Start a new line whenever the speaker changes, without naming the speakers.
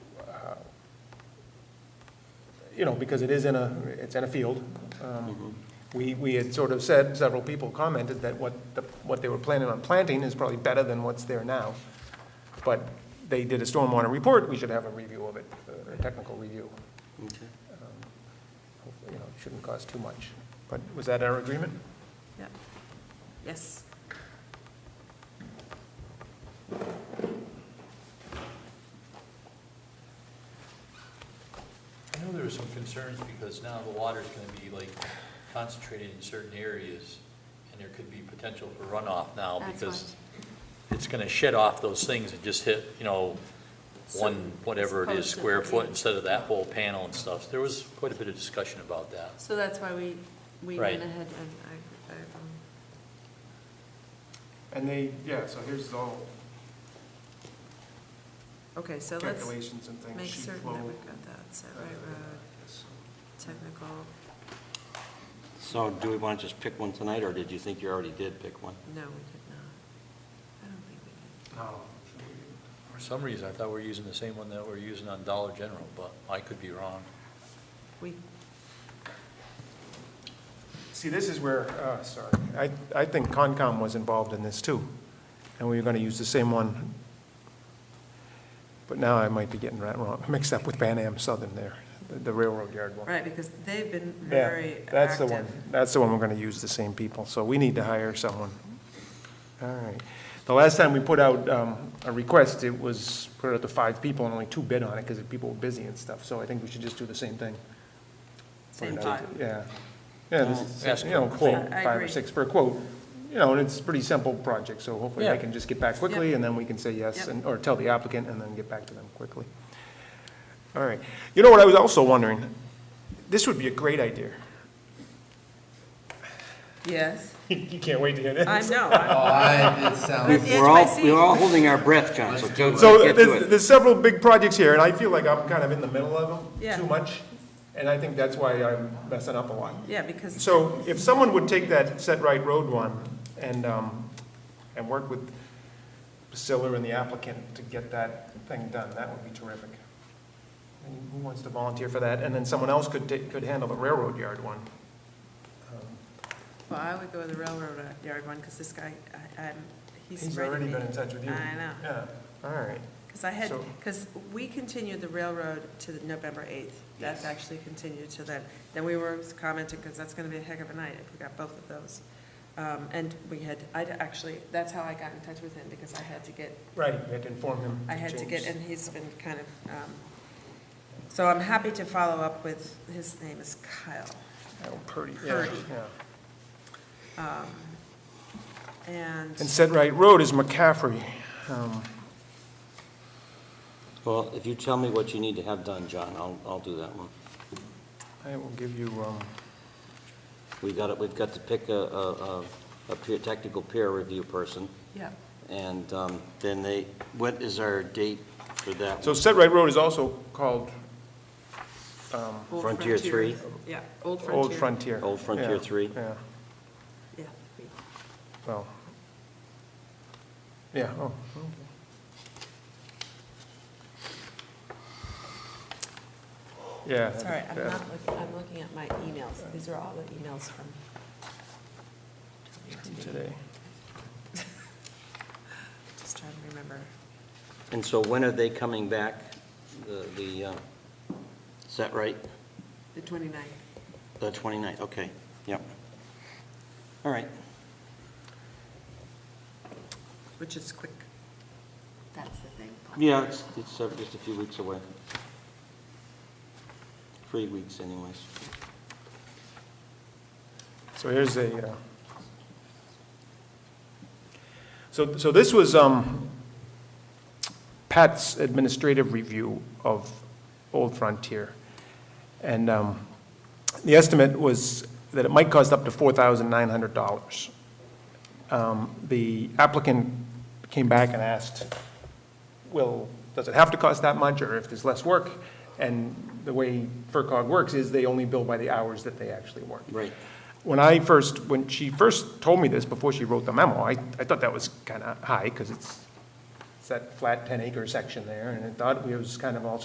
you know, because it is in a, it's in a field. Um, We, we had sort of said, several people commented that what, the- what they were planning on planting is probably better than what's there now. But they did a stormwater report, we should have a review of it, uh, a technical review. Um,
Okay.
Hopefully, You know, it shouldn't cost too much. But was that our agreement?
Yeah. Yes.
I know there were some concerns because now the water's gonna be like concentrated in certain areas, and there could be potential for runoff now
That's
because it's gonna shed off those things and just hit, you know, one,
So,
whatever it is,
supposed to
square foot
be-
instead of that whole panel and stuff. There was quite a bit of discussion about that.
So that's why we, we
Right.
went ahead and, I, I, um,
And they, yeah, so here's all
okay, so let's
calculations and things.
make
sheet
certain
flow,
that we've got that, set right road, technical,
So do we want to just pick one tonight, or did you think you already did pick one?
no, we did not. I don't think we did.
No.
For some reason, I thought we were using the same one that we're using on Dollar General, but I could be wrong.
We,
See, this is where, uh, sorry, I, I think Concom was involved in this too, and we were gonna use the same one. But now I might be getting that wrong, mixed up with Pan Am Southern there, the- the railroad yard one.
right, because they've been
Yeah,
very active.
that's the one, that's the one we're gonna use, the same people, so we need to hire someone. All right. The last time we put out, um, a request, it was, put out to five people and only two bid on it, because people were busy and stuff, so I think we should just do the same thing. for
Same
another-
time.
Yeah, yeah, this is,
Ask
you know,
for-
quote,
I- I
five or
agree.
six per quote. You know, and it's a pretty simple project, so hopefully they
Yeah.
can just get back quickly,
Yep.
and then we can say yes,
Yep.
and, or tell the applicant, and then get back to them quickly. All right, you know what I was also wondering, this would be a great idea.
Yes,
You can't wait to hear
I
this.
know, I'm-
Oh, I, it sounds.
With the
We're all,
HYC.
we're all holding our breath, John, so go-
So
get to
there's,
it.
there's several big projects here, and I feel like I'm kind of in the middle of
Yeah.
them, too much, and I think that's why I'm messing up a lot.
yeah, because,
So if someone would take that Set Right Road one and, um, and work with Priscilla and the applicant to get that thing done, that would be terrific. And Who wants to volunteer for that? And then someone else could, ta- could handle the railroad yard one.
well, I would go with the railroad yard one, because this guy, I, I'm, he's
He's
ready
already
to
been in touch with you.
I know.
Yeah, all right.
Because I had,
So-
because we continued the railroad to the November 8th. That's
Yes.
actually continued to then. Then we were commenting, because that's going to be a heck of a night if we got both of those. Um, And we had, I actually, that's how I got in touch with him, because I had to get,
Right, you had to inform him.
I had to get,
change.
and he's been kind of, um, so I'm happy to follow up with, his name is Kyle.
Oh, Purdy, yeah,
Purdy.
yeah.
And
And Set Right Road is McCaffrey. Um,
Well, if you tell me what you need to have done, John, I'll, I'll do that one.
I will give you, um,
We've got, it. we've got to pick a, a, a- a peer, technical peer review person,
yeah,
and um, then they, what is our date for that?
so
one?
Set Right Road is also called
Old
Frontier three?
Yeah, Old Frontier.
Old Frontier.
Old Frontier
Yeah,
three.
Yeah,
Yeah.
well. Yeah, oh, okay. Yeah.
It's all right, I'm
yeah.
not, look- I'm looking at my emails. These are all the emails from
Today.
Just trying to remember.
And so when are they coming back? The, the, uh, is that right?
The 29th.
The 29th, okay, yep. All right.
Which is quick. That's the thing.
Yeah, it's, it's uh, just a few weeks away. Three weeks anyways.
So here's a, uh, so, so this was um, Pat's administrative review of Old Frontier. And um, the estimate was that it might cost up to $4,900. Um, The applicant came back and asked, well, does it have to cost that much, or if there's less work? And the way FERCog works is they only bill by the hours that they actually work.
Right.
When I first, when she first told me this, before she wrote the memo, I, I thought that was kind of high, because it's, it's that flat 10-acre section there, and I thought it was kind of all